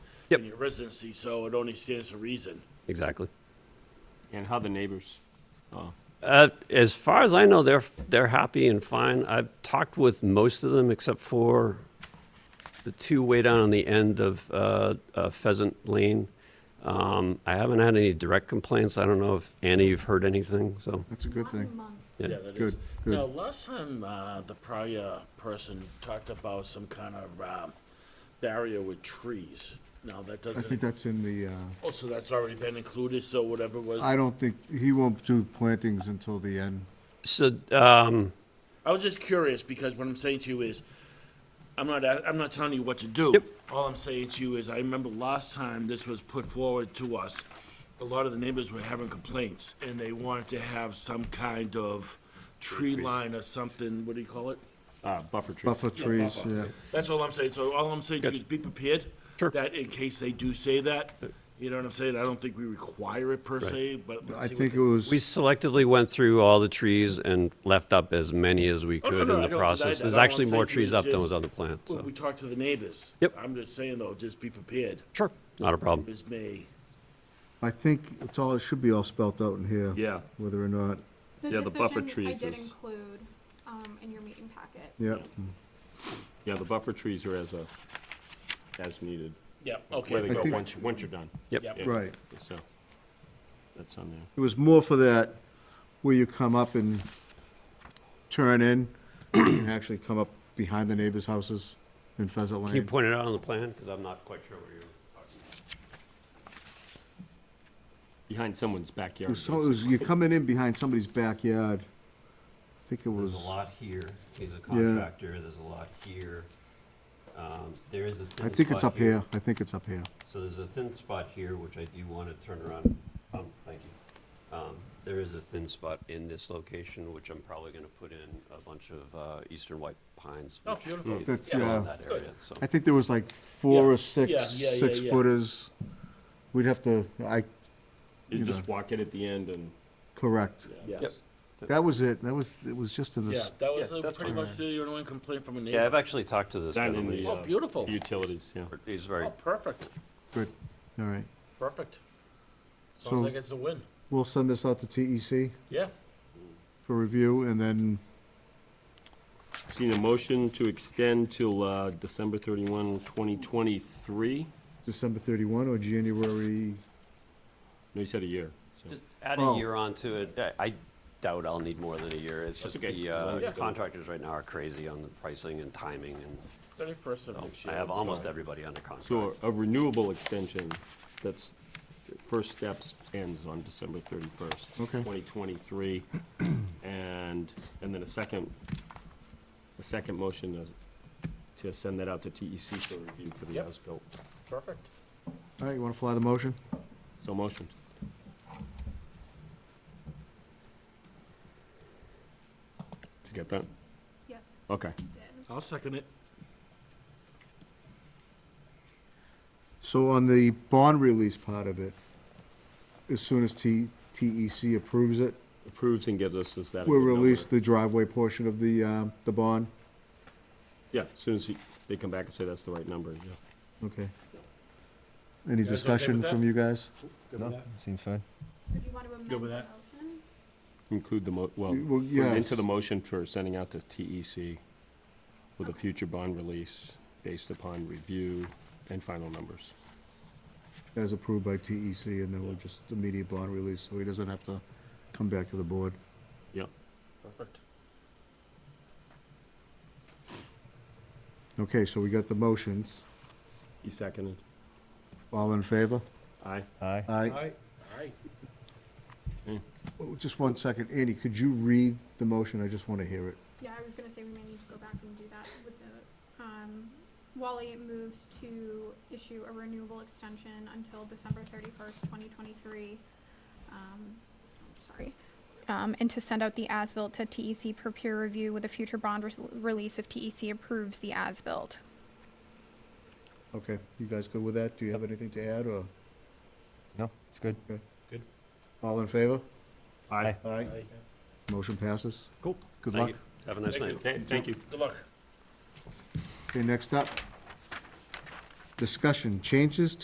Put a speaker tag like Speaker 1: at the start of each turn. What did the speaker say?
Speaker 1: Yep.
Speaker 2: in your residency, so it only stands to reason.
Speaker 1: Exactly.
Speaker 3: And how the neighbors? Oh,
Speaker 1: Uh, as far as I know, they're they're happy and fine. I've talked with most of them except for the two way down on the end of uh, uh, Pheasant Lane. Um, I haven't had any direct complaints. I don't know if Annie, you've heard anything. So
Speaker 4: That's a good thing.
Speaker 1: Yeah.
Speaker 2: Yeah, that
Speaker 4: Good,
Speaker 2: is.
Speaker 4: good.
Speaker 2: Now, last time, uh, the prior person talked about some kind of, um, barrier with trees. Now, that
Speaker 4: I think
Speaker 2: doesn't,
Speaker 4: that's in the, uh,
Speaker 2: oh, so that's already been included, so whatever was,
Speaker 4: I don't think, he won't do plantings until the end.
Speaker 1: so um,
Speaker 2: I was just curious, because what I'm saying to you is, I'm not, a- I'm not telling you what to do.
Speaker 1: Yep.
Speaker 2: All I'm saying to you is, I remember last time this was put forward to us, a lot of the neighbors were having complaints, and they wanted to have some kind of tree line or something, what do you call it?
Speaker 3: uh, buffer trees.
Speaker 4: Buffer trees, yeah.
Speaker 2: That's all I'm saying. So all I'm saying to you is be prepared.
Speaker 1: Sure.
Speaker 2: That in case they do say that, you know what I'm saying? I don't think we require it per se, but let's
Speaker 4: I
Speaker 2: see what
Speaker 4: think
Speaker 2: they-
Speaker 4: it was,
Speaker 1: we selectively went through all the trees and left up as many as we
Speaker 2: Oh, no,
Speaker 1: could
Speaker 2: no, I don't
Speaker 1: in the
Speaker 2: deny
Speaker 1: process.
Speaker 2: that.
Speaker 1: There's
Speaker 2: All I'm
Speaker 1: actually
Speaker 2: saying
Speaker 1: more
Speaker 2: to you
Speaker 1: trees
Speaker 2: is
Speaker 1: up than
Speaker 2: just-
Speaker 1: was on the plant.
Speaker 2: Well,
Speaker 1: So
Speaker 2: We talk to the neighbors.
Speaker 1: Yep.
Speaker 2: I'm just saying though, just be prepared.
Speaker 1: sure, not a problem.
Speaker 2: Ms. May,
Speaker 4: I think it's all, it should be all spelt out in here.
Speaker 3: Yeah.
Speaker 4: Whether or not,
Speaker 3: Yeah, the buffer trees
Speaker 5: decision I did
Speaker 3: is-
Speaker 5: include um, in your meeting packet.
Speaker 4: yeah.
Speaker 3: Yeah, the buffer trees are as a, as needed.
Speaker 2: yeah,
Speaker 3: Where they
Speaker 2: okay.
Speaker 3: go,
Speaker 4: think-
Speaker 3: once, you- once you're done.
Speaker 1: Yep.
Speaker 2: Yep.
Speaker 3: Yeah,
Speaker 4: Right.
Speaker 3: So, that's on there.
Speaker 4: It was more for that, where you come up and turn in, and actually come up behind the neighbors' houses in Pheasant
Speaker 1: Can you
Speaker 4: Lane.
Speaker 1: point it out on the plan? Because I'm not quite sure what you're talking about.
Speaker 3: Behind someone's
Speaker 4: It
Speaker 3: backyard.
Speaker 4: was so- it was- You're coming in behind somebody's backyard. I think it was,
Speaker 1: There's a lot here, he's a contractor, there's a lot here. Um, There is a
Speaker 4: I
Speaker 1: thin
Speaker 4: think it's
Speaker 1: spot
Speaker 4: up here, I think it's up here.
Speaker 1: So there's a thin spot here, which I do want to turn around, um, thank you. Um, There is a thin spot in this location, which I'm probably going to put in a bunch of uh, eastern white pines.
Speaker 2: Oh,
Speaker 1: which
Speaker 2: beautiful.
Speaker 1: feed
Speaker 4: That's,
Speaker 1: around
Speaker 4: yeah.
Speaker 1: that area, so.
Speaker 4: I think there was like four
Speaker 2: Yeah,
Speaker 4: or six,
Speaker 2: yeah, yeah, yeah,
Speaker 4: six
Speaker 2: yeah.
Speaker 4: footers. We'd have to, I,
Speaker 3: You
Speaker 4: you
Speaker 3: just
Speaker 4: know.
Speaker 3: walk it at the end and,
Speaker 4: correct.
Speaker 2: Yes.
Speaker 4: That was it, that was, it was just in
Speaker 2: Yeah,
Speaker 4: this,
Speaker 2: that was
Speaker 1: Yeah,
Speaker 2: uh,
Speaker 1: that's
Speaker 2: pretty
Speaker 1: fine.
Speaker 2: much the only complaint from a
Speaker 1: Yeah, I've
Speaker 2: neighbor.
Speaker 1: actually talked to this
Speaker 3: that and the.
Speaker 1: gentleman.
Speaker 3: uh,
Speaker 2: Oh, beautiful.
Speaker 3: Utilities, yeah.
Speaker 1: He's very,
Speaker 2: Oh, perfect,
Speaker 4: good, all right.
Speaker 2: perfect.
Speaker 4: So-
Speaker 2: Sounds like it's a win.
Speaker 4: We'll send this out to TEC
Speaker 2: Yeah,
Speaker 4: for review and then
Speaker 3: Seen a motion to extend till, uh, December thirty-one, twenty twenty-three?
Speaker 4: December thirty-one or January,
Speaker 3: No, you said a year, so.
Speaker 1: Just add a
Speaker 4: Oh.
Speaker 1: year onto it, I- I doubt I'll need more than a year, it's
Speaker 3: That's
Speaker 1: just
Speaker 3: okay.
Speaker 1: the
Speaker 3: As long
Speaker 1: uh,
Speaker 3: as you don't-
Speaker 1: contractors right now are crazy on the pricing and timing and
Speaker 2: thirty-first of
Speaker 1: So
Speaker 2: next year.
Speaker 1: I have
Speaker 2: Fine.
Speaker 1: almost everybody under contract.
Speaker 3: So a renewable extension, that's, first steps ends on December thirty-first.
Speaker 4: Okay.
Speaker 3: Twenty twenty-three, and, and then a second, a second motion is to send that out to TEC for review for the
Speaker 2: Yep.
Speaker 3: as-built.
Speaker 2: Perfect.
Speaker 4: all right, you wanna fly the motion?
Speaker 3: So motion. Did you get that?
Speaker 5: Yes.
Speaker 3: Okay.
Speaker 5: I Did.
Speaker 2: I'll second it.
Speaker 4: So on the bond release part of it, as soon as T, TEC approves it,
Speaker 3: Approves and gives us is that. a
Speaker 4: we'll
Speaker 3: good number?
Speaker 4: release the driveway portion of the, um, the bond,
Speaker 3: Yeah, as soon as he- they come back and say that's the right number, yeah.
Speaker 4: okay? Any
Speaker 2: guys okay
Speaker 4: discussion
Speaker 2: with that?
Speaker 4: from you guys?
Speaker 6: Seems fine.
Speaker 5: So do you want to amend the
Speaker 2: with
Speaker 5: motion?
Speaker 2: that?
Speaker 3: Include the mo, well,
Speaker 4: Well,
Speaker 3: put it
Speaker 4: yes.
Speaker 3: into the motion for sending out to TEC with a future bond release based upon review and final numbers.
Speaker 4: as approved by TEC, and then we'll just immediate bond release, so he doesn't have to come back to the board.
Speaker 3: Yep.
Speaker 2: Perfect.
Speaker 4: Okay, so we got the motions.
Speaker 3: You seconded?
Speaker 4: All in favor?
Speaker 3: Aye.
Speaker 6: Aye.
Speaker 4: Aye.
Speaker 2: Aye.
Speaker 4: Oh, Just one second. Andy, could you read the motion? I just want to hear it.
Speaker 5: Yeah, I was going to say we may need to go back and do that with the, um, Wally moves to issue a renewable extension until December thirty-first, twenty twenty-three. Um, I'm sorry. Um, and to send out the as-built to TEC for peer review with a future bond res- release if TEC approves the as-built.
Speaker 4: Okay, you guys good with that? Do you have anything to add, or?
Speaker 6: No, it's good.
Speaker 4: okay.
Speaker 2: Good.
Speaker 4: All in favor?
Speaker 6: Aye.
Speaker 4: Aye. Motion passes.
Speaker 3: Cool.
Speaker 4: Good
Speaker 1: Thank
Speaker 4: luck.
Speaker 1: you. Have a nice
Speaker 2: Thank
Speaker 1: night.
Speaker 2: you.
Speaker 3: Th- Thank you.
Speaker 2: Good luck.
Speaker 4: Okay, next up. Discussion, changes